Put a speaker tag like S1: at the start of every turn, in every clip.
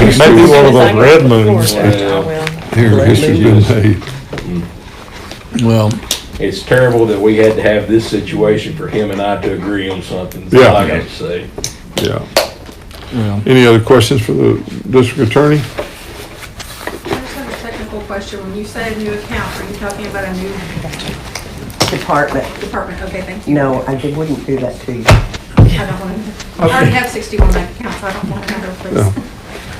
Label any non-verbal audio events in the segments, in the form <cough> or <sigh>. S1: This
S2: Maybe
S1: is-
S2: one of those red moons.
S1: Here, this has been made.
S3: Well,
S4: It's terrible that we had to have this situation for him and I to agree on something. That's all I
S1: Yeah.
S4: gotta say.
S1: Yeah.
S3: well,
S1: Any other questions for the district attorney?
S5: I just have a technical question. When you say new account, are you talking about a new
S6: department.
S5: department? Okay, thank you.
S6: No, I did- wouldn't do that to you.
S5: I don't want to, I already have 61 bank accounts. I don't want another, please. <laughs>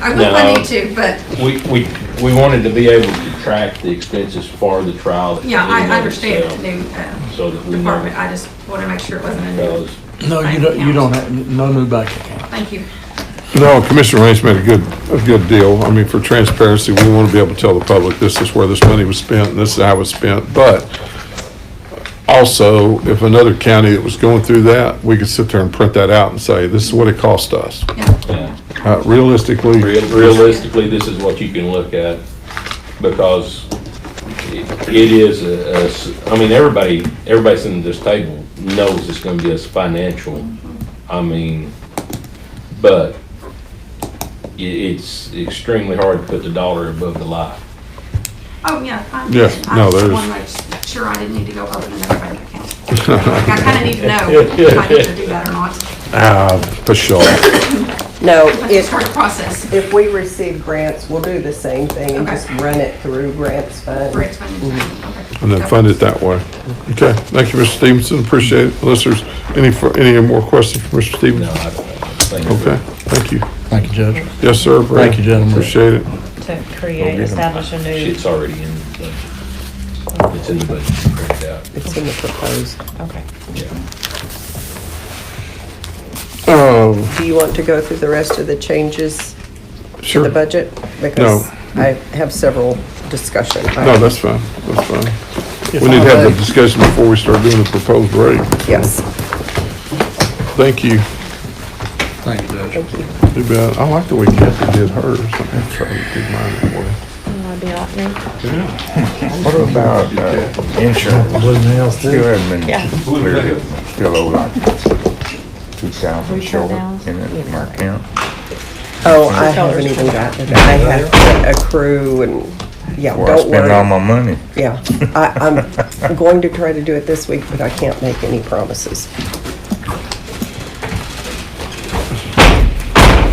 S5: I will if I need to, but
S4: We, we, we wanted to be able to track the expenses for the trial. that
S5: yeah, I
S4: we
S5: I understand it's a
S4: so-
S5: new uh,
S4: So that we
S5: department.
S4: know,
S5: I just want to make sure it wasn't a new.
S4: because
S3: no, you don't, you don't have, no new bank account.
S5: Thank you.
S1: No, Commissioner Rain's made a good, a good deal. I mean, for transparency, we want to be able to tell the public this is where this money was spent and this is how it was spent. But also, if another county that was going through that, we could sit there and print that out and say, this is what it cost us.
S5: Yeah.
S4: uh,
S1: Uh, Realistically,
S4: real- realistically, this is what you can look at because it it is a- a s- I mean, everybody, everybody sitting at this table knows it's gonna be a financial, I mean, but i- it's extremely hard to put the dollar above the lie.
S5: Oh, yeah. I'm-
S1: Yeah,
S5: I
S1: no,
S5: just
S1: there's-
S5: wanted to make Sure, I didn't need to go open another bank account. Like, I kind of need to know if I need to do that or not.
S1: <laughs> ah, for sure.
S6: No,
S5: It's just
S6: if,
S5: hard to process.
S6: if we receive grants, we'll do the same thing and
S5: Okay.
S6: just run it through grants fund.
S5: Breaks my- okay.
S1: And then fund it that way. Okay, thank you, Mr. Stevenson, appreciate it. Unless there's any, fur- any more questions for Mr.
S4: No,
S1: Stevenson?
S4: I don't think.
S1: Okay, thank you.
S3: Thank you, Judge.
S1: Yes, sir. Brad.
S3: Thank you, gentlemen.
S1: Appreciate it.
S7: to create, establish a new,
S4: It's already in the budget. It's in the budget, printed out.
S6: It's in the proposed.
S7: okay.
S1: Um,
S6: Do you want to go through the rest of the changes to
S1: Sure.
S6: the budget? Because I have several discussion.
S1: No, that's fine, that's fine.
S3: If
S1: We need to
S3: I
S1: have the
S3: may-
S1: discussion before we start doing the proposed rate.
S6: Yes,
S1: Thank you.
S3: Thank you, Judge.
S6: thank you.
S1: You bet. I like the way Kathy did hers. I'm trying to do mine that way.
S8: What about uh, insurance?
S3: Blue nails, too.
S8: You have been
S7: Yeah.
S8: clearly still owe like two thousand short in it, my account.
S6: Oh, I haven't even gotten it. I have to accrue and, yeah,
S8: Where I
S6: don't
S8: spend all
S6: worry.
S8: my money.
S6: Yeah, I, I'm going to try to do it this week, but I can't make any promises.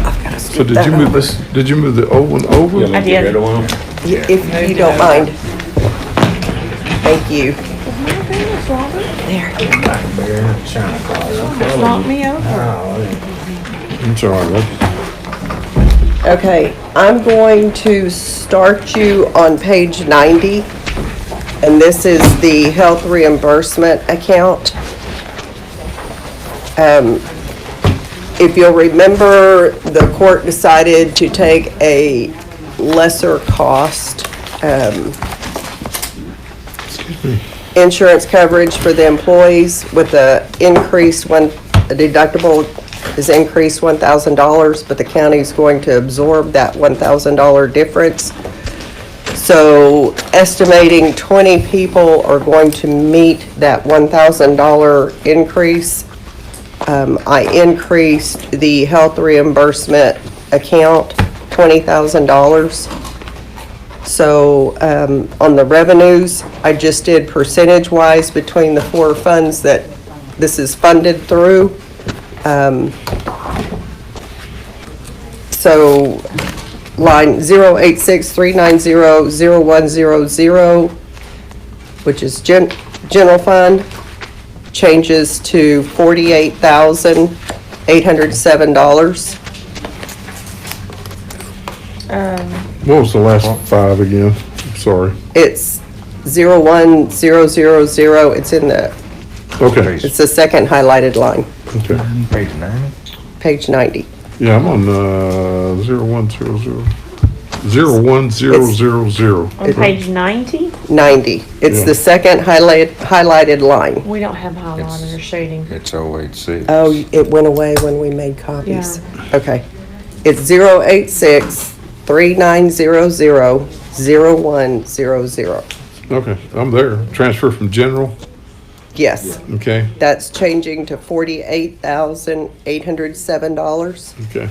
S6: I've gotta
S1: So
S6: scoop
S1: did
S6: that
S1: you move
S6: over.
S1: this, did you move the old one
S4: You
S1: over?
S4: want me to get rid of one?
S6: Y- If you don't mind. Thank you.
S7: Flaunt me over.
S1: I'm sorry, that-
S6: Okay, I'm going to start you on page 90, and this is the health reimbursement account. Um, If you'll remember, the court decided to take a lesser cost um, insurance coverage for the employees with the increase one, the deductible is increased one thousand dollars, but the county's going to absorb that one thousand dollar difference. So estimating twenty people are going to meet that one thousand dollar increase. Um, I increased the health reimbursement account twenty thousand dollars. So um, on the revenues, I just did percentage-wise between the four funds that this is funded through. Um, So line 08639000100, which is gen- general fund, changes to $48,807.
S1: What was the last five again? I'm Sorry.
S6: It's 01000, it's in the,
S1: Okay,
S6: it's the second highlighted line,
S1: okay.
S8: Page ninety?
S6: page 90.
S1: Yeah, I'm on, uh, zero one zero zero, zero one zero zero zero.
S7: On page ninety,
S6: 90. It's the second highlighted, highlighted line.
S7: we don't have highlighter or shading.
S8: It's oh eight six.
S6: Oh, it went away when we made copies.
S7: Yeah.
S6: Okay. It's 086-3900-0100.
S1: Okay, I'm there. Transfer from general,
S6: Yes,
S1: okay,
S6: that's changing to $48,807.
S1: okay.